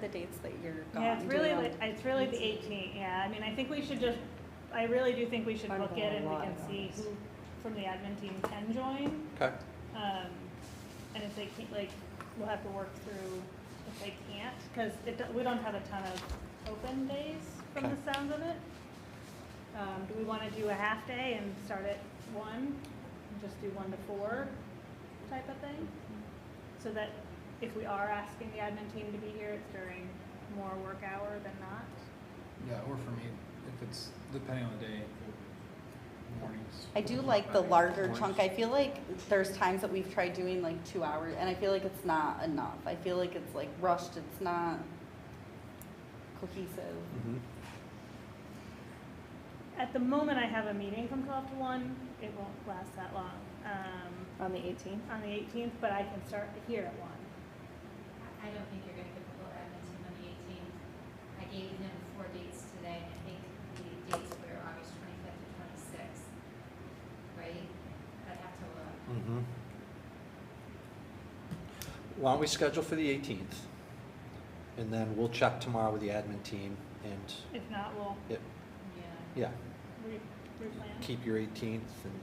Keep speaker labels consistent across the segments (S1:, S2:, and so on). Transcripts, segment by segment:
S1: the dates that you're gone?
S2: Yeah, it's
S1: Do
S2: really,
S1: you know?
S2: li- it's really the 18th, yeah, I mean, I think we should just, I really do think we should
S1: Bundle
S2: look at it,
S1: a
S2: we
S1: lot
S2: can
S1: of
S2: see
S1: those.
S2: who from the admin team can join.
S3: Okay,
S2: Um, and if they can't, like, we'll have to work through if they can't, because it, do- we don't have a ton of open days from the
S3: Okay.
S2: sounds of it. Um, do we want to do a half day and start at one, and just do one to four type of thing? So that if we are asking the admin team to be here, it's during more work hour than not?
S4: Yeah, or for me, if it's depending on the day, mornings.
S1: I do like the larger
S4: Mornings.
S1: chunk. I feel like there's times that we've tried doing like two hours and I feel like it's not enough. I feel like it's like rushed, it's not cohesive.
S3: mhm,
S2: At the moment, I have a meeting from twelve to one, it won't last that long, um,
S5: On the 18th?
S2: on the eighteenth, but I can start here at one.
S6: I don't think you're gonna get the full Edmonton on the eighteenth. I gave him four dates today, and I think the dates were August twenty-fifth and twenty-sixth, right? I'd have to look.
S3: mhm. Why don't we schedule for the 18th? And then we'll check tomorrow with the admin team and,
S2: If not, we'll
S6: Yeah.
S3: yeah,
S2: re- replan.
S3: keep your 18th and,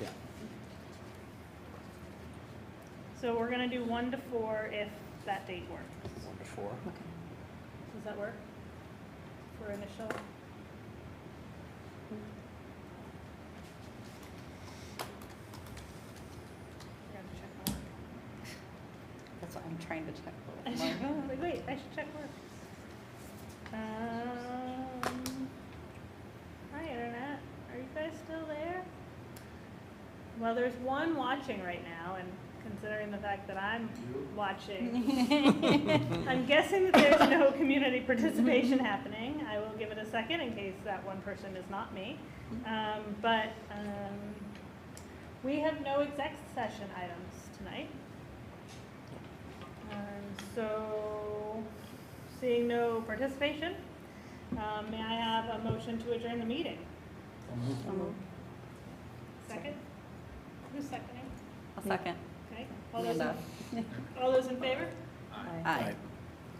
S3: yeah.
S2: So we're gonna do one to four if that date works.
S3: One to four.
S1: Okay.
S2: Does that work? For initial? Yeah, check mark.
S1: That's what I'm trying to check.
S2: I
S1: Like,
S2: should- I was like, wait, I should check work. Um, hi, internet. Are you guys still there? Well, there's one watching right now, and considering the fact that I'm watching, I'm guessing that there's no community participation happening. I will give it a second in case that one person is not me. Um, but um, we have no exec session items tonight. Um, So, seeing no participation, um, may I have a motion to adjourn the meeting?
S4: I'll move.
S1: Um,
S2: Second? Who's seconding?
S1: A second.
S2: Okay, all those,
S1: Amanda.
S2: in- all those in favor?
S1: Aye.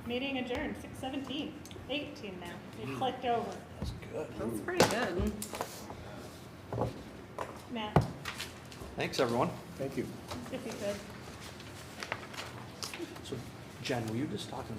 S2: Meeting adjourned, six seventeen, eighteen now, we clicked over.
S3: That's good.
S1: That's pretty good.
S2: Matt,
S3: Thanks, everyone.
S4: Thank you.
S2: if you could.
S3: So Jen, were you just talking